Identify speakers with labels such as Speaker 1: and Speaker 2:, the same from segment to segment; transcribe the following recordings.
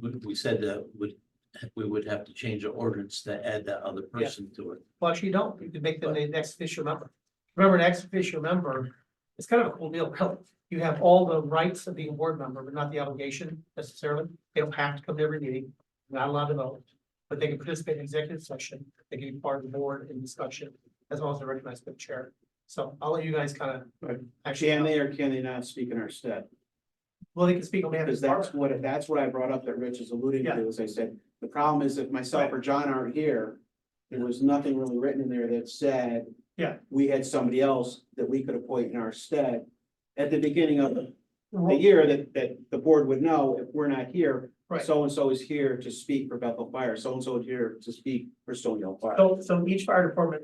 Speaker 1: we, we said that would, we would have to change the ordinance to add that other person to it.
Speaker 2: Well, actually, you don't, you can make them the next official member. Remember, an ex officio member, it's kind of a cool deal, really. You have all the rights of being a board member, but not the obligation necessarily. They don't have to come to every meeting, not allowed to vote. But they can participate in executive session, they can be part of the board in discussion, as long as they're recognized by the chair. So I'll let you guys kind of.
Speaker 3: Right.
Speaker 2: Actually,
Speaker 3: Can they or can they not speak in our stead?
Speaker 2: well, they can speak on behalf of
Speaker 3: Because
Speaker 2: the
Speaker 3: that's
Speaker 2: department.
Speaker 3: what, that's what I brought up that Rich is alluding to, as I said, the problem is if myself or John aren't here, there was nothing really written in there that said.
Speaker 2: Yeah.
Speaker 3: We had somebody else that we could appoint in our stead at the beginning of the the
Speaker 2: Well,
Speaker 3: year that, that the board would know if we're not here.
Speaker 2: Right.
Speaker 3: So-and-so is here to speak for Bethel Fire, so-and-so is here to speak for Stony Hill Fire.
Speaker 2: So, so each fire department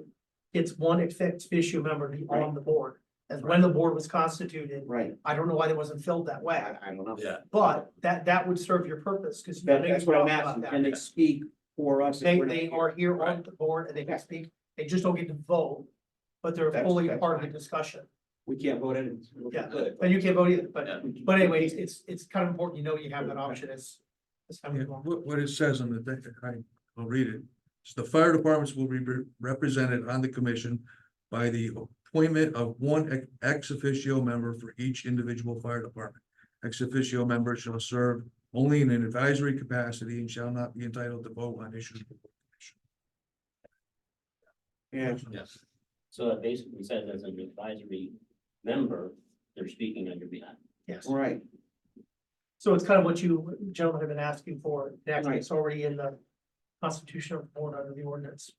Speaker 2: gets one ex officio member to be on the board. As when the board was constituted,
Speaker 3: Right,
Speaker 2: I don't know why that wasn't filled that way.
Speaker 3: I, I don't know.
Speaker 1: Yeah,
Speaker 2: But that, that would serve your purpose, because.
Speaker 3: That- that's what I'm asking, can they speak for us? if
Speaker 2: They,
Speaker 3: we're not
Speaker 2: they
Speaker 3: here?
Speaker 2: are here on
Speaker 3: Right.
Speaker 2: the board and they
Speaker 3: Yeah.
Speaker 2: can speak, they just don't get to vote, but they're
Speaker 3: That's-
Speaker 2: fully
Speaker 3: that's
Speaker 2: part of the
Speaker 3: fine.
Speaker 2: discussion.
Speaker 3: We can't vote in. we
Speaker 2: Yeah.
Speaker 3: could, but-
Speaker 2: And you can't vote either, but,
Speaker 1: Yeah.
Speaker 2: but anyway, it's- it's, it's kind of important, you know, you have that option as, as time
Speaker 4: Yeah,
Speaker 2: goes along.
Speaker 4: what, what it says on the, thing, I, I'll read it. It's the fire departments will be re- represented on the commission by the appointment of one ex- ex officio member for each individual fire department. Ex officio member shall serve only in an advisory capacity and shall not be entitled to vote on issues.
Speaker 3: Yeah.
Speaker 1: yes.
Speaker 5: So it basically says as an advisory member, they're speaking on your behalf.
Speaker 2: Yes,
Speaker 3: Right,
Speaker 2: so it's kind of what you gentlemen have been asking for, and actually,
Speaker 3: Right.
Speaker 2: it's already in the constitution of the board under the ordinance.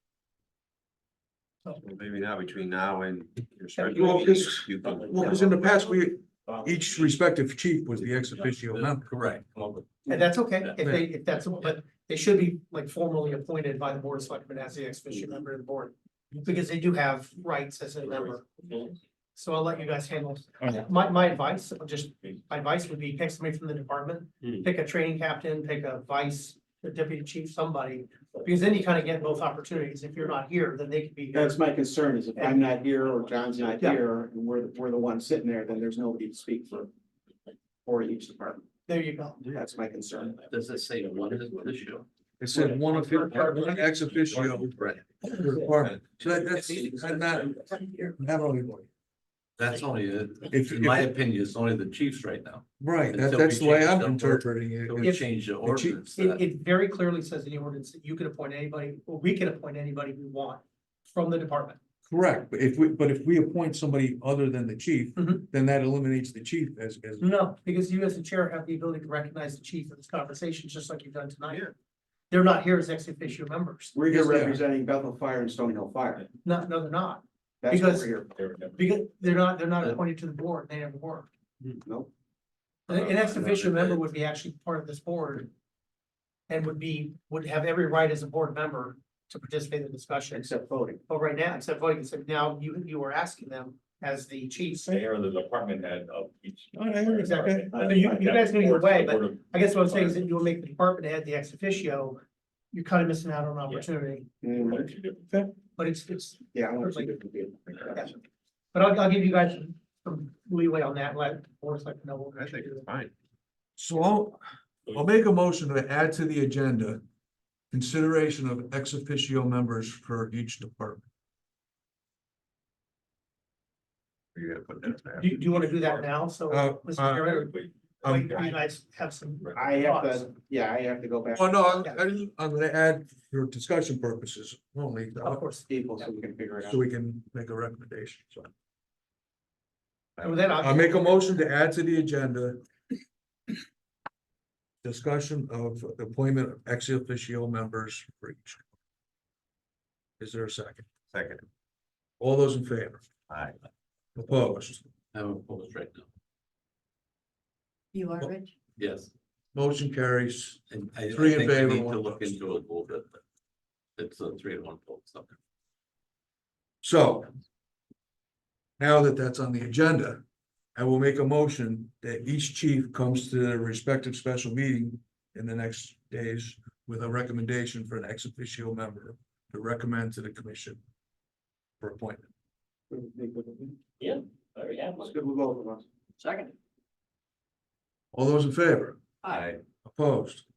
Speaker 2: So,
Speaker 6: Well, Maybe now, between now and. your special
Speaker 4: Well,
Speaker 6: meeting,
Speaker 4: it's-
Speaker 6: you can-
Speaker 4: Well, because in the past, we,
Speaker 5: Well,
Speaker 4: each respective chief was the ex officio member.
Speaker 1: Correct.
Speaker 5: come up with-
Speaker 2: And that's okay, if they, if that's, what- but they should be like formally appointed by the board of selectmen as the ex officio member of the board. Because they do have rights as a member, so I'll let you guys handle.
Speaker 1: Alright.
Speaker 2: My, my advice, I'll just, my advice would be pick somebody from the department,
Speaker 5: Hmm.
Speaker 2: pick a training captain, pick a vice, a deputy chief, somebody. Because then you kind of get both opportunities, if you're not here, then they could be. here.
Speaker 3: that's my concern is if I'm not here or John's not
Speaker 2: Yeah.
Speaker 3: here and we're, the- we're the one sitting there, then there's nobody to speak for. For each department,
Speaker 2: There you go,
Speaker 3: that's my concern.
Speaker 1: Does it say one is the issue?
Speaker 4: It said one of, one ex officio
Speaker 1: Right.
Speaker 4: per department. So that, that's, I'm not, not only,
Speaker 1: That's only, uh,
Speaker 4: If-
Speaker 1: in my
Speaker 4: if-
Speaker 1: opinion, it's only the chiefs right now.
Speaker 4: right, that,
Speaker 1: Until
Speaker 4: that's
Speaker 1: we
Speaker 4: the way
Speaker 1: change
Speaker 4: I'm
Speaker 1: that word.
Speaker 4: interpreting it.
Speaker 1: So we
Speaker 2: If-
Speaker 1: change the
Speaker 4: the chief-
Speaker 1: ordinance.
Speaker 2: it,
Speaker 1: that-
Speaker 2: it very clearly says in the ordinance that you can appoint anybody, or we can appoint anybody we want from the department.
Speaker 4: Correct, but if we, but if we appoint somebody other than the chief,
Speaker 1: Mm-hmm.
Speaker 2: Mhm.
Speaker 4: then that eliminates the chief as, as.
Speaker 2: No, because you as the chair have the ability to recognize the chief of this conversation, just like you've done tonight. They're not here as ex officio members.
Speaker 3: We're here
Speaker 4: Yes, they are.
Speaker 3: representing Bethel Fire and Stony Hill Fire.
Speaker 2: No, no, they're not,
Speaker 3: That's what
Speaker 2: Because-
Speaker 3: we're here.
Speaker 5: They're a member.
Speaker 2: because they're not, they're not appointed to the board, they never were.
Speaker 3: Nope.
Speaker 2: An an ex
Speaker 1: Uh,
Speaker 2: officio
Speaker 1: uh,
Speaker 2: member would be actually part of this board. And would be, would have every right as a board member to participate in the discussion,
Speaker 3: except voting.
Speaker 2: but right now, except voting, except now you, you were asking them as the chief.
Speaker 7: They are the department head of each.
Speaker 2: Exactly. So Oh, you- you guys know either way, but I guess what I'm saying is that you will make the department head the ex officio, you're kind of missing out on an opportunity,
Speaker 3: Mm,
Speaker 2: but it's, it's,
Speaker 3: Yeah. I want you to be-
Speaker 2: But I'll, I'll give you guys some- some leeway on that, let, or it's like, no. what we
Speaker 6: I
Speaker 2: should
Speaker 6: think
Speaker 2: do.
Speaker 6: it's fine.
Speaker 4: So I'll, I'll make a motion to add to the agenda consideration of ex officio members for each department.
Speaker 6: You gotta put that.
Speaker 2: Do, you- do you want to do that now? So,
Speaker 4: Uh,
Speaker 2: Mr.
Speaker 4: uh,
Speaker 2: Chairman,
Speaker 7: Wait,
Speaker 2: or you
Speaker 4: Um,
Speaker 2: you guys have some.
Speaker 3: I have to, yeah, I have to go back
Speaker 4: oh, no, I- I- I'm gonna add for discussion purposes only,
Speaker 2: Of course.
Speaker 3: to people so we can figure it out.
Speaker 4: so we can make a recommendation, so.
Speaker 2: And with that, I'll-
Speaker 4: I make a motion to add to the agenda. Discussion of appointment of ex officio members for each. Is there a second?
Speaker 6: Second,
Speaker 4: All those in favor?
Speaker 6: aye.
Speaker 4: Opposed?
Speaker 1: I'm opposed right now.
Speaker 8: You are
Speaker 4: Well-
Speaker 8: rich.
Speaker 1: Yes.
Speaker 4: Motion carries.
Speaker 1: And I I
Speaker 4: Three in
Speaker 1: think we
Speaker 4: favor,
Speaker 1: need
Speaker 4: one
Speaker 1: to look
Speaker 4: opposed.
Speaker 1: into it a little bit. but It's a three to one vote, so.
Speaker 4: So. Now that that's on the agenda, I will make a motion that each chief comes to their respective special meeting in the next days with a recommendation for an ex officio member to recommend to the commission for appointment.
Speaker 3: It's
Speaker 5: Yeah, I already have one.
Speaker 3: good with both of us.
Speaker 5: Second.
Speaker 4: All those in favor?
Speaker 6: Aye.
Speaker 4: Opposed?